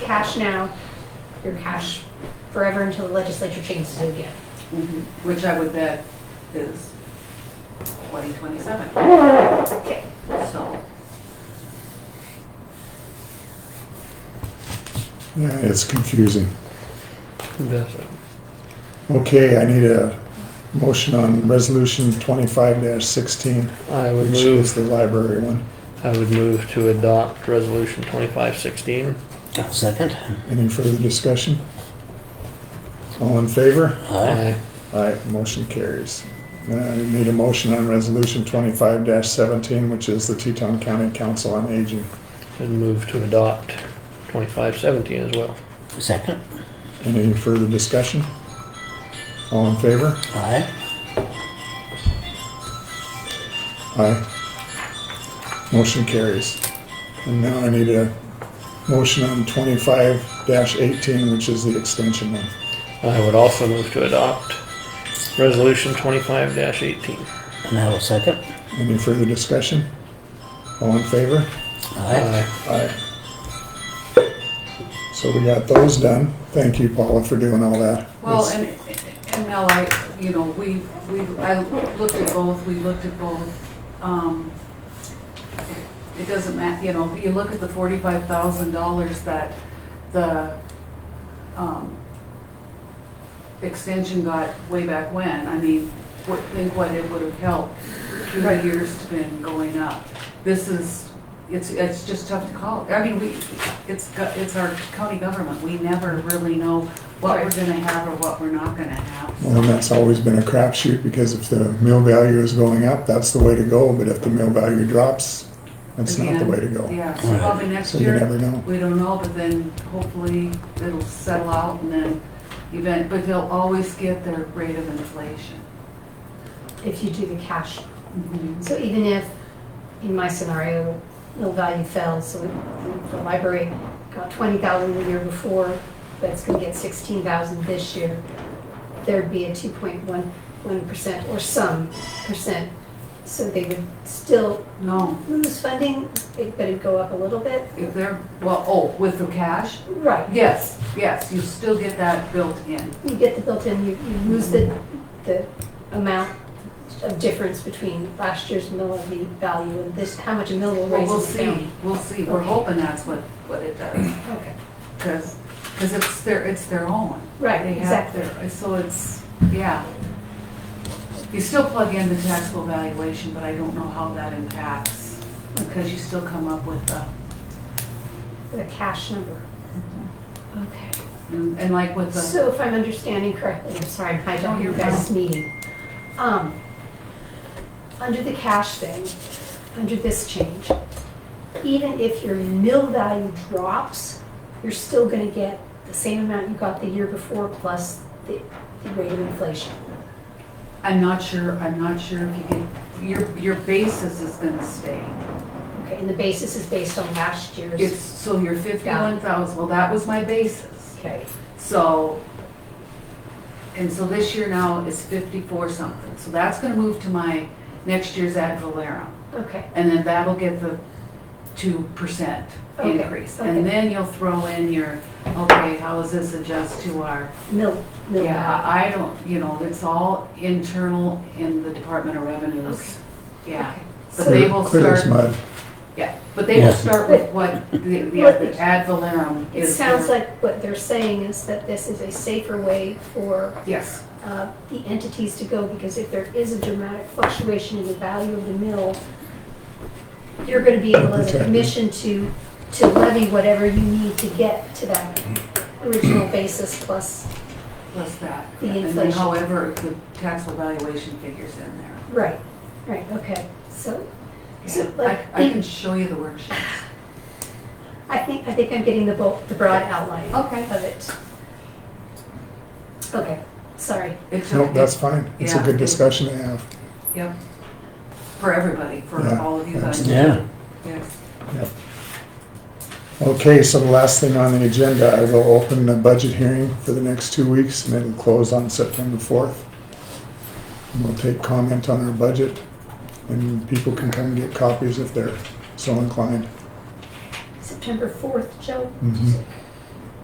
cash now, you're cash forever until the legislature changes it again. Mhm. Which I would bet is 2027, Okay. so. Yeah, it's confusing. That's it. Okay, I need a motion on resolution twenty-five sixteen, I would which move, is the library one. I would move to adopt resolution twenty-five sixteen. I'll second. Any further discussion? All in favor? Aye. Aye, motion carries. Uh, I need a motion on resolution twenty-five seventeen, which is the Teton County Council on Aging. And move to adopt twenty-five seventeen as well. Second. Any further discussion? All in favor? Aye. Aye. Motion carries. And now I need a motion on twenty-five eighteen, which is the extension one. I would also move to adopt resolution twenty-five eighteen. And I will second. Any further discussion? All in favor? Aye. Aye. So we got those done. Thank you, Paula, for doing all that. Well, It's- and, and Mel, I, you know, we, we, I looked at both, we looked at both. Um, It doesn't matter, you know, you look at the forty-five thousand dollars that the, um, extension got way back when, I mean, what, think what it would have helped through the years it's been going up. This is, it's, it's just tough to call, I mean, we, it's, go- it's our county government, we never really know what we're gonna have or what we're not gonna have. Well, and that's always been a crapshoot because if the mill value is going up, that's the way to go, but if the mill value drops, that's not the way to go. Yeah, so probably next So you year. never know. We don't know, but then hopefully it'll settle out and then event, but they'll always get their rate of inflation. If you do the cash. Mhm. So even if, in my scenario, mill value fell, so the library got twenty thousand the year before, but it's gonna get sixteen thousand this year, there'd be a two point one, one percent or some percent. So they would still No, lose funding, it- but it'd go up a little bit. if they're, well, oh, with the cash? Right, Yes, yes, you still get that built in. you get the built-in, you, you lose the, the amount of difference between last year's mill levy value and this, how much a mill will Well, raise we'll in the county. see, we'll see. We're hoping that's what, what it does, Okay, because, because it's their, it's their own. right, They have exactly. their, so it's, yeah. You still plug in the taxable valuation, but I don't know how that impacts, because you still come up with the, The cash number. Okay, and and like with the, so if I'm understanding correctly, I'm sorry, I'm hiding on your guys' meeting. Um, under the cash thing, under this change, even if your mill value drops, you're still gonna get the same amount you got the year before plus the, the rate of inflation. I'm not sure, I'm not sure if you can, your, your basis is gonna stay. Okay, and the basis is based on last It's, year's, so your fifty-one thousand, well, that was my basis. okay, So, and so this year now is fifty-four something, so that's gonna move to my next year's ad valorem. okay, And then that'll get the two percent Okay, increase. okay. And then you'll throw in your, okay, how does this adjust to our, mill, mill yeah, value. I don't, you know, it's all internal in the Department of Revenues. Yeah, Okay. but So- they will Clear as start- mud. yeah, but they will Yeah. start with what the, the the ad valorem It is. sounds their- like what they're saying is that this is a safer way for Yes, uh, the entities to go, because if there is a dramatic fluctuation in the value of the mill, you're gonna be able as a Protected. commission to, to levy whatever you need to get to that original basis plus, plus that. The And then inflation. however, the taxable valuation figures in there. right, right, okay. So, so Yeah. like, I, I can show you the worksheet. I think, I think I'm getting the bulk, the broad outline Okay. of it. Okay, sorry. It took- Nope, that's fine. It's a Yeah. good discussion to have. Yep. For everybody, for Yeah, all of you guys. Yeah. Yes. Okay, so the last thing on the agenda, I will open the budget hearing for the next two weeks and it'll close on September fourth. And we'll take comment on our budget and people can come get copies if they're so inclined. September 4th, Joe? Mhm.